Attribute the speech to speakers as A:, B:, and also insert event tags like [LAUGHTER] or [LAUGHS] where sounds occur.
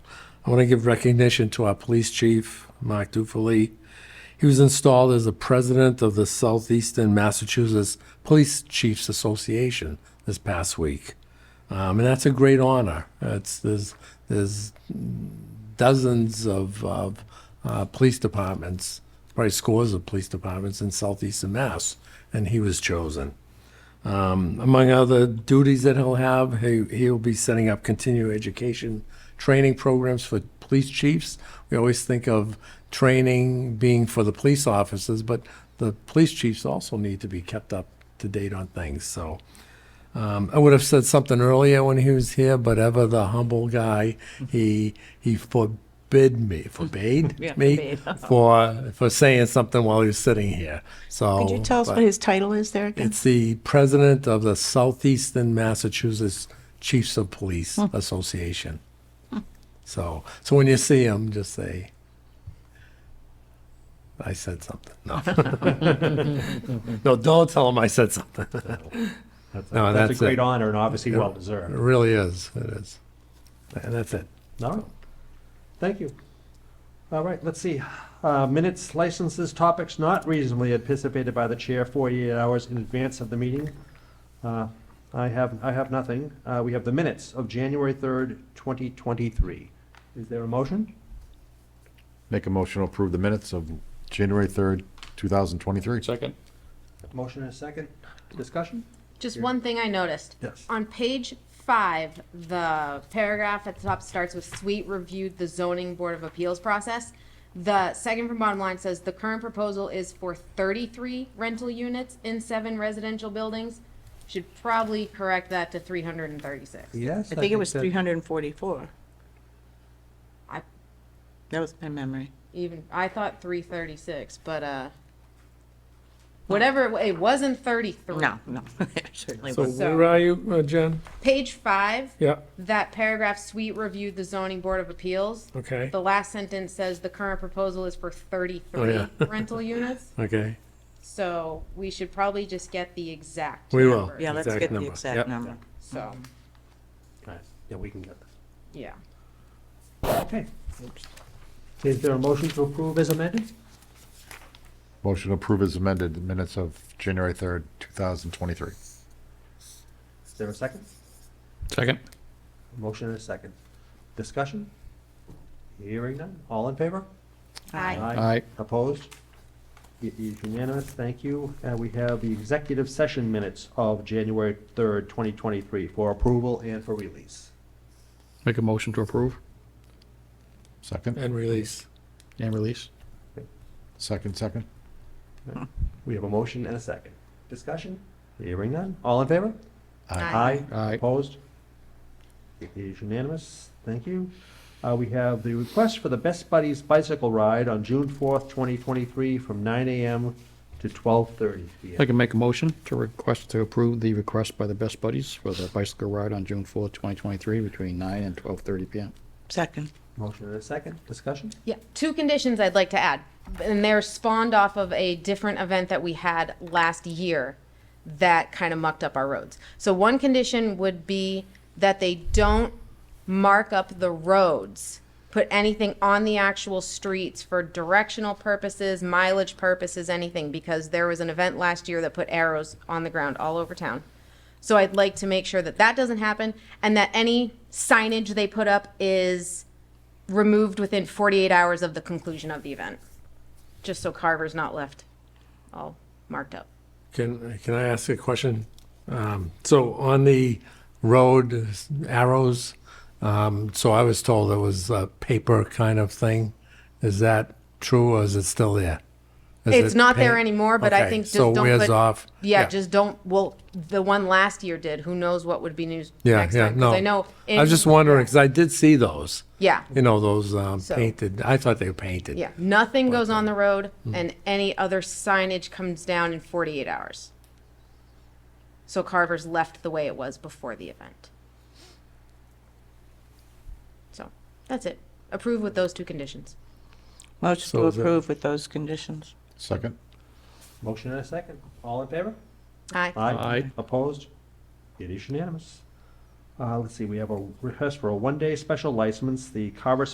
A: I want to give recognition to our police chief, Mark Dufali. He was installed as the president of the Southeastern Massachusetts Police Chiefs Association this past week. Um, and that's a great honor. It's, there's, there's dozens of, of uh, police departments, probably scores of police departments in southeastern Mass, and he was chosen. Um, among other duties that he'll have, he, he'll be setting up continuing education training programs for police chiefs. We always think of training being for the police officers, but the police chiefs also need to be kept up to date on things. So um, I would have said something earlier when he was here, but ever the humble guy, he he forbid me, forbade
B: [LAUGHS] Yeah,
A: me
B: forbade.
A: for for saying something while he was sitting here. So
C: Could you tell us
A: Oh, but-
C: what his title is there again?
A: it's the president of the Southeastern Massachusetts Chiefs of Police
C: Hmm.
A: Association. So, so when you see him, just say, "I said something."
C: [LAUGHS]
A: No, no, don't tell him I said something.
D: That's a,
A: No,
D: that's
A: that's
D: a great
A: it.
D: honor and obviously
A: Yeah.
D: well
A: It
D: deserved.
A: really is. It is, and that's it.
D: All right. Thank you. All right, let's see. Uh, minutes, licenses, topics not reasonably anticipated by the chair 48 hours in advance of the meeting. Uh, I have, I have nothing. Uh, we have the minutes of January 3rd, 2023. Is there a motion?
E: Make a motion to approve the minutes of January 3rd, 2023.
F: Second?
D: Motion and a second. Discussion?
G: Just one thing I noticed.
D: Yes.
G: On page five, the paragraph at the top starts with Sweet reviewed the zoning board of appeals process. The second from bottom line says the current proposal is for thirty-three rental units in seven residential buildings. Should probably correct that to three hundred and thirty-six.
D: Yes.
C: I think it was
D: that-
C: 344.
G: I-
C: That was my memory.
G: Even, I thought three thirty-six, but, uh, whatever, it wa- it wasn't thirty-three.
C: No, Oh, no, [LAUGHS] it certainly
A: So,
C: was.
G: So-
A: where are you, uh, Jen?
G: Page five,
A: Yeah.
G: that paragraph, Sweet reviewed the zoning board of appeals.
A: Okay.
G: The last sentence says the current proposal is for
A: Oh,
G: thirty-three
A: yeah. [LAUGHS]
G: rental units,
A: Okay.
G: so we should probably just get the exact
A: We will.
G: number.
C: Yeah, let's
A: Exact
C: get the
A: number. Yep.
C: exact number.
G: So,
D: Nice. Yeah, we can get that.
G: yeah.
D: Okay. Is there a motion to approve as amended?
E: Motion to approve as amended, the minutes of January 3rd, 2023.
D: Is there a second?
F: Second.
D: Motion and a second. Discussion? Hearing none. All in favor?
G: I,
E: Aye.
D: Opposed? It is unanimous. Thank you. Uh, we have the executive session minutes of January third, twenty twenty-three for approval and for release.
F: Make a motion to approve
E: Second,
A: And release.
F: and release.
E: second, second.
D: We have a motion and a second. Discussion? Hearing none. All in favor?
G: Aye.
F: Aye.
D: Opposed? It is unanimous. Thank you. Uh, we have the request for the Best Buddies bicycle ride on June fourth, twenty twenty-three from nine AM to twelve thirty
F: I
D: PM.
F: can make a motion to request to approve the request by the Best Buddies for the bicycle ride on June fourth, twenty twenty-three, between nine and twelve thirty PM.
C: Second.
D: Motion and a second. Discussion?
G: yeah, two conditions I'd like to add, and they're spawned off of a different event that we had last year that kind of mucked up our roads. So one condition would be that they don't mark up the roads, put anything on the actual streets for directional purposes, mileage purposes, anything, because there was an event last year that put arrows on the ground all over town. So I'd like to make sure that that doesn't happen and that any signage they put up is removed within 48 hours of the conclusion of the event. Just so Carver's not left all marked up.
A: Can, can I ask a question? Um, So on the road arrows, um, so I was told it was a paper kind of thing. Is that true or is it still there? Is
G: It's
A: it
G: not there
A: paint-
G: anymore, but I
A: Okay,
G: think just
A: so
G: don't
A: it wears
G: put-
A: off.
G: Yeah, just don't. Well, the one last year did. Who knows what would be news
A: Yeah,
G: next
A: yeah,
G: time? 'cause
A: no.
G: I know.
A: I was just wondering, because I did see those,
G: Yeah,
A: you know, those um,
G: So-
A: painted, I thought they were painted.
G: yeah. Nothing goes on the road,
A: Mm.
G: and any other signage comes down in 48 hours. So Carver's left the way it was before the event. So that's it. Approve with those two conditions.
C: Motion to
A: So is that-
C: approve with those conditions.
E: Second,
D: Motion and a second. All in favor?
G: Aye.
F: Aye.
D: Opposed? It is unanimous. Uh, let's see, we have a request for a one-day special license, the Carver